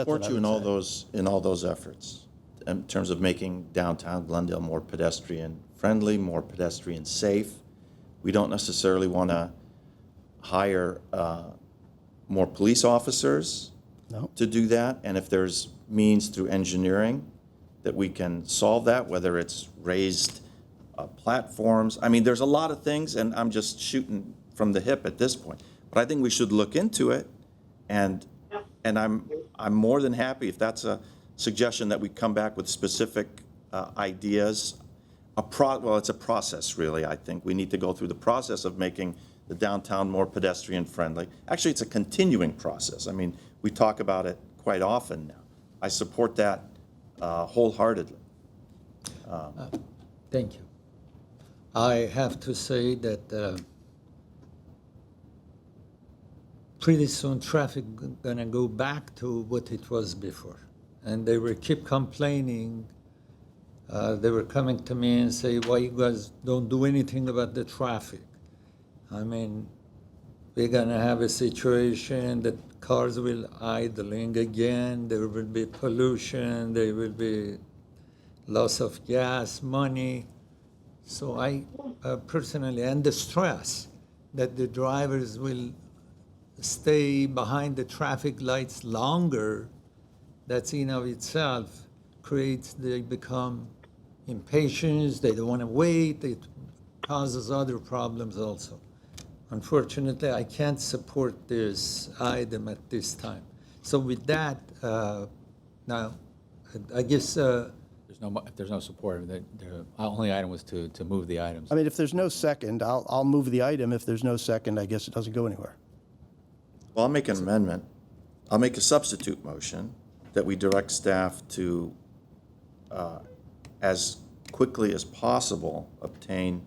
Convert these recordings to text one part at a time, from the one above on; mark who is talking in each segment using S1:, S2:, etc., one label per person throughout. S1: support you in all those, in all those efforts, in terms of making downtown Glendale more pedestrian-friendly, more pedestrian-safe. We don't necessarily want to hire uh, more police officers
S2: No.
S1: to do that, and if there's means through engineering that we can solve that, whether it's raised uh, platforms, I mean, there's a lot of things, and I'm just shooting from the hip at this point. But I think we should look into it, and, and I'm, I'm more than happy if that's a suggestion that we come back with specific uh, ideas. A pro, well, it's a process, really, I think. We need to go through the process of making the downtown more pedestrian-friendly. Actually, it's a continuing process. I mean, we talk about it quite often now. I support that uh, wholeheartedly.
S3: Thank you. I have to say that uh, pretty soon traffic g- gonna go back to what it was before. And they will keep complaining. Uh, They were coming to me and say, why you guys don't do anything about the traffic? I mean, we're gonna have a situation that cars will idling again, there will be pollution, there will be loss of gas, money. So I uh, personally, and the stress that the drivers will stay behind the traffic lights longer, that's in of itself creates, they become impatient, they don't want to wait, it causes other problems also. Unfortunately, I can't support this item at this time. So with that, uh, now, I- I guess uh,
S4: There's no, mo- if there's no support, the, the only item was to, to move the items.
S2: I mean, if there's no second, I'll, I'll move the item. If there's no second, I guess it doesn't go anywhere.
S1: Well, I'll make an amendment. I'll make a substitute motion that we direct staff to, uh, as quickly as possible, obtain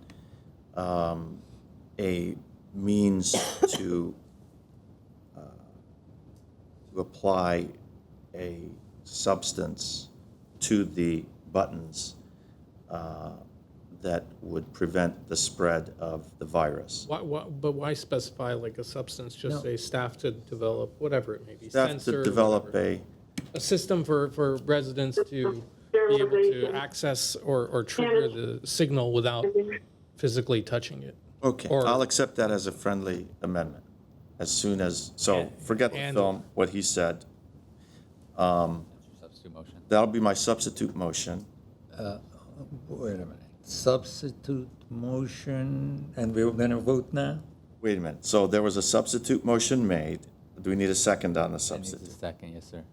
S1: um, a means to uh, to apply a substance to the buttons uh, that would prevent the spread of the virus.
S5: Why, why, but why specify like a substance? Just
S3: No.
S5: say staff to develop whatever it may be.
S1: Staff to
S5: sensor,
S1: develop
S5: whatever.
S1: a.
S5: a system for, for residents to be able to access or, or trigger the signal without physically touching it.
S1: Okay,
S5: Or-
S1: I'll accept that as a friendly amendment, as soon as, so forget the
S5: And-
S1: film, what he said. Um,
S4: Substitute motion.
S1: That'll be my substitute motion.
S3: Wait a minute. Substitute motion, and we're going to vote now?
S1: Wait a minute, so there was a substitute motion made. Do we need a second on the
S4: I need a
S1: substitute?
S4: second, yes, sir.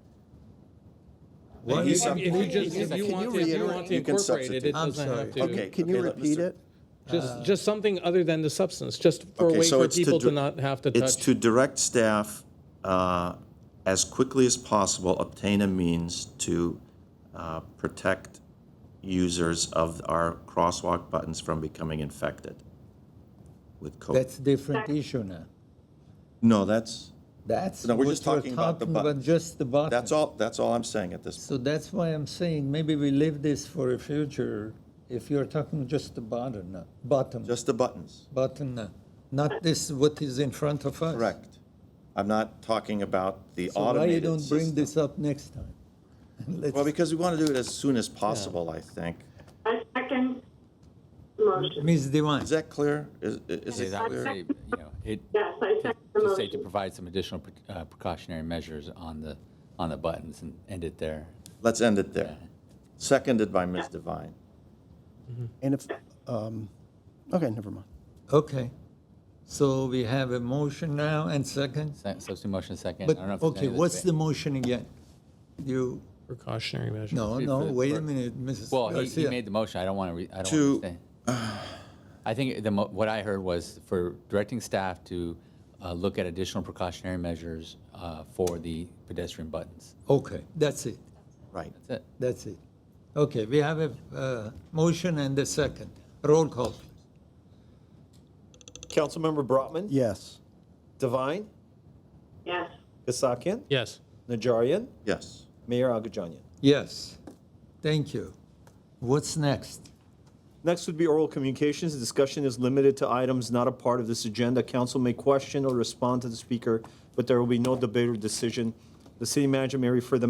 S3: What?
S1: He's-
S5: If you just, if
S4: Can
S5: you
S4: you
S5: want to, if you want to
S1: You can
S5: incorporate it,
S1: substitute.
S5: it
S3: I'm
S5: doesn't have
S3: sorry.
S5: to.
S1: Okay.
S2: Can you
S1: let
S2: repeat
S1: Mr.
S2: it?
S5: Just, just something other than the substance, just for a
S1: Okay,
S5: way
S1: so
S5: for
S1: it's to
S5: people to
S1: dir-
S5: not have to
S1: It's
S5: touch.
S1: to direct staff, uh, as quickly as possible, obtain a means to uh, protect users of our crosswalk buttons from becoming infected with COVID.
S3: That's different issue now.
S1: No, that's,
S3: That's
S1: No,
S3: what
S1: we're
S3: you're
S1: just talking
S3: talking
S1: about the
S3: about,
S1: buttons.
S3: just the button.
S1: that's all, that's all I'm saying at this point.
S3: So that's why I'm saying, maybe we leave this for a future, if you're talking just the button, now, bottom,
S1: Just the buttons.
S3: button, now, not this, what is in front of us.
S1: Correct. I'm not talking about the
S3: So why you
S1: automated
S3: don't bring
S1: system.
S3: this up next time? Let's-
S1: Well, because we want to do it as soon as possible, I think.
S6: I second motion.
S3: Ms. Devine,
S1: Is that clear? Is, is
S4: Say
S1: it
S4: that,
S1: clear?
S4: say, you know, it,
S6: Yes, I second the
S4: just say to
S6: motion.
S4: provide some additional pre- uh, precautionary measures on the, on the buttons and end it there.
S1: Let's end it there. Seconded by Ms. Devine.
S2: And if, um, okay, never mind.
S3: okay. So we have a motion now and second?
S4: Se- Substitute motion second. I
S3: But,
S4: don't know if there's
S3: okay,
S4: any
S3: what's the
S4: debate.
S3: motion again? You,
S5: Precautionary measure.
S3: no,
S4: Shoot
S3: no,
S4: for the-
S3: wait a
S4: for-
S3: minute, Mrs.
S4: Well, he, he
S3: Garcia.
S4: made the motion. I don't want to, I don't
S1: To-
S4: want to stay. I think the, mo- what I heard was for directing staff to uh, look at additional precautionary measures uh, for the pedestrian buttons.
S3: Okay, that's it,
S1: Right.
S4: That's it.
S3: that's it. Okay, we have a uh, motion and a second. Roll call, please.
S7: Councilmember Brotman,
S2: Yes.
S7: Devine,
S6: Yes,
S7: Kasakian,
S5: Yes.
S7: Najarian,
S1: Yes.
S7: Mayor Agajanian.
S3: Yes, thank you. What's next?
S7: Next would be oral communications. The discussion is limited to items not a part of this agenda. Council may question or respond to the speaker, but there will be no debate or decision. The city manager may refer the